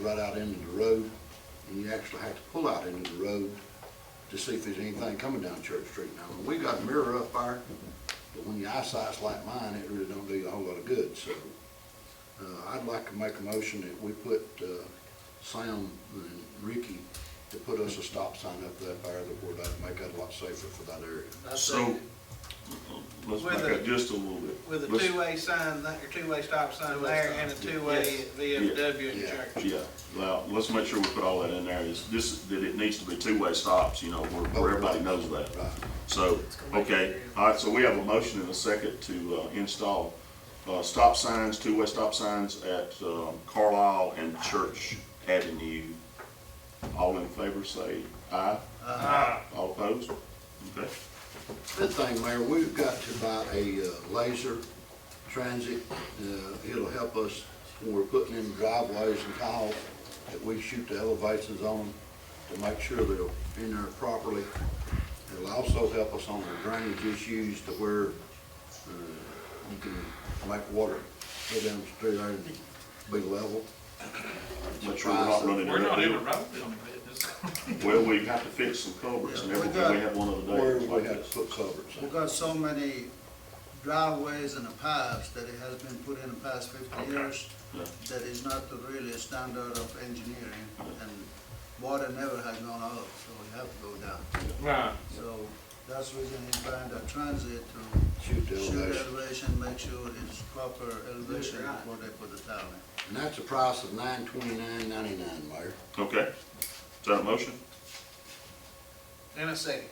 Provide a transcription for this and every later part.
right out into the road, and you actually have to pull out into the road to see if there's anything coming down Church Street. Now, when we got a mirror up there, but when your eyesight's like mine, it really don't do you a whole lot of good, so. Uh, I'd like to make a motion that we put, uh, Sam and Ricky to put us a stop sign up that there that would uh, make that a lot safer for that area. I So, see, let's With back a- up just a little bit. with a Let's- two-way sign, that- or two-way stop sign Two-way there stop. and a two-way at VFW and Yeah. church. Yeah, well, let's make sure we put all that in there, is this, that it needs to be two-way stops, you know, where, where everybody knows that. Right. So, okay, all right, so we have a motion and a second to, uh, install, uh, stop signs, two-way stop signs at, um, Carlisle and Church Avenue. All in favor, say aye. Aye. All opposed? Okay, Good thing, Mayor, we've got to buy a uh, laser transit. Uh, It'll help us when we're putting in driveways and tiles that we shoot the elevations on to make sure they're in there properly. It'll also help us on the drainage issues to where uh, you can make water go down the street there and be level. make sure we're not running. We're not in into the road building business. Well, we've got to fix some culverts and Yeah, we everything, we got- had one other day. Where that was we like have this. to put covers. We got so many driveways and pipes that it has been put in the past fifty years Yeah. that is not the really standard of engineering, and water never has gone up, so we have to go down. Right. So that's the reason he's buying the transit to Shoot the shoot elevation. elevation, make sure it's proper elevation before they put the tile in. And that's a price of nine twenty-nine ninety-nine, Mayor. Okay, is that a motion? And a second.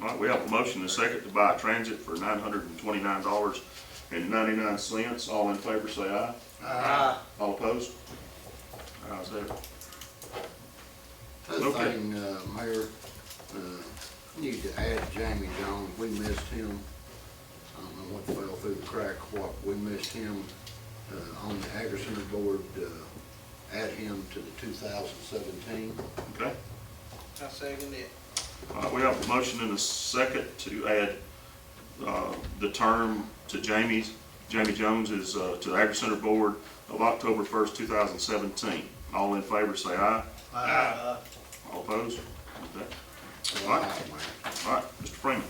All right, we have a motion and a second to buy a transit for nine hundred and twenty-nine dollars and ninety-nine cents. All in favor, say aye. All opposed? Ayes have it. Other Okay. thing, uh, Mayor, uh, need to add Jamie Jones, we missed him. I don't know what fell through the crack, what, we missed him, uh, on the Agri Center Board, uh, add him to the two thousand seventeen. Okay, I second it. all right, we have a motion and a second to add, uh, the term to Jamie's, Jamie Jones is, uh, to the Agri Center Board of October first, two thousand seventeen. All in favor, say aye. Uh, All opposed? Okay, all right, all right, Mr. Freeman.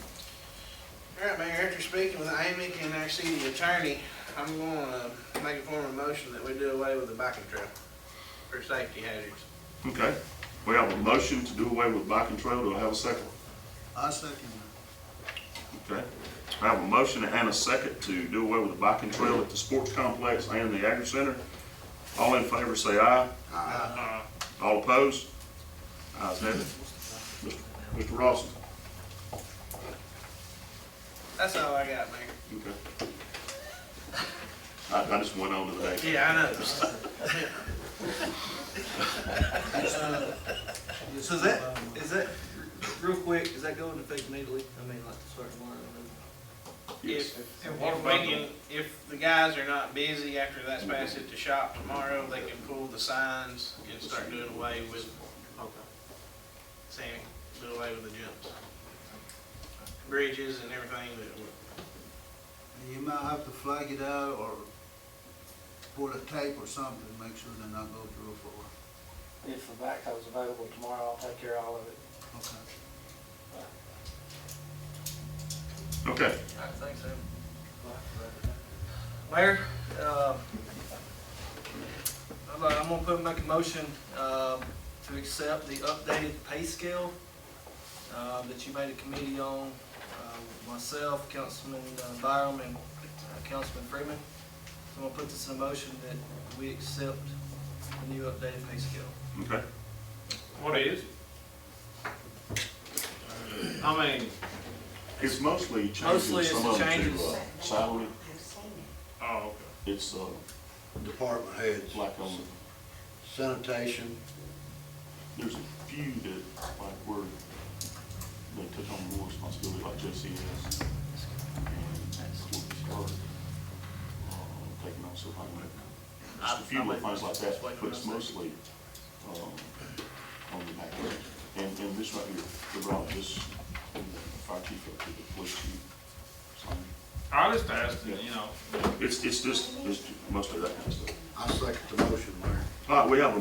All right, Mayor, after speaking with Amy and our city attorney, I'm gonna make a formal motion that we do away with the biking trail for safety hazards. Okay, we have a motion to do away with bike control. Do I have a second? I second Okay. I have a motion and a second to do away with the biking trail at the sports complex and the agri center. All in favor, say aye. Aye. All opposed? Ayes have it. Mr. Ross. That's all I got, Mayor. Okay. I, I just went on to the next. Yeah, I know. So is that, is that, real quick, is that going to affect immediately? I mean, like, start tomorrow? Yes. If, And if what we about can, if the guys are not busy after that's passed at the shop tomorrow, they can pull the signs and start doing away with, Okay. saying, do away with the jumps. Bridges and everything that were it. You might have to flag it out or pull a tape or something, make sure they're not go through for a while. If the backhoe's available tomorrow, I'll take care of all of it. Okay. Okay, I think so. Mayor, uh, I'm gonna- I'm gonna put, make a motion, um, to accept the updated pay scale, uh, that you made a committee on, uh, with myself, Councilman uh, Byram, and uh, Councilman Freeman. So I'm gonna put this in motion that we accept the new updated pay scale. okay. What is? I mean, It's mostly Mostly changing it's some of them to changes. uh, salary. oh, It's, uh, Department heads, like on, sanitation, there's a few that, like, were, they took on more responsibility, like JCS. and, uh, Taking on some, like, just a few little things like that, but it's mostly, um, on the back end. And, and this right here, the route, this, the fire chief up to the police chief. so- okay. I just asked, you know, It's, it's just, it's most of that kind of stuff. I second the motion, Mayor. All right, we have a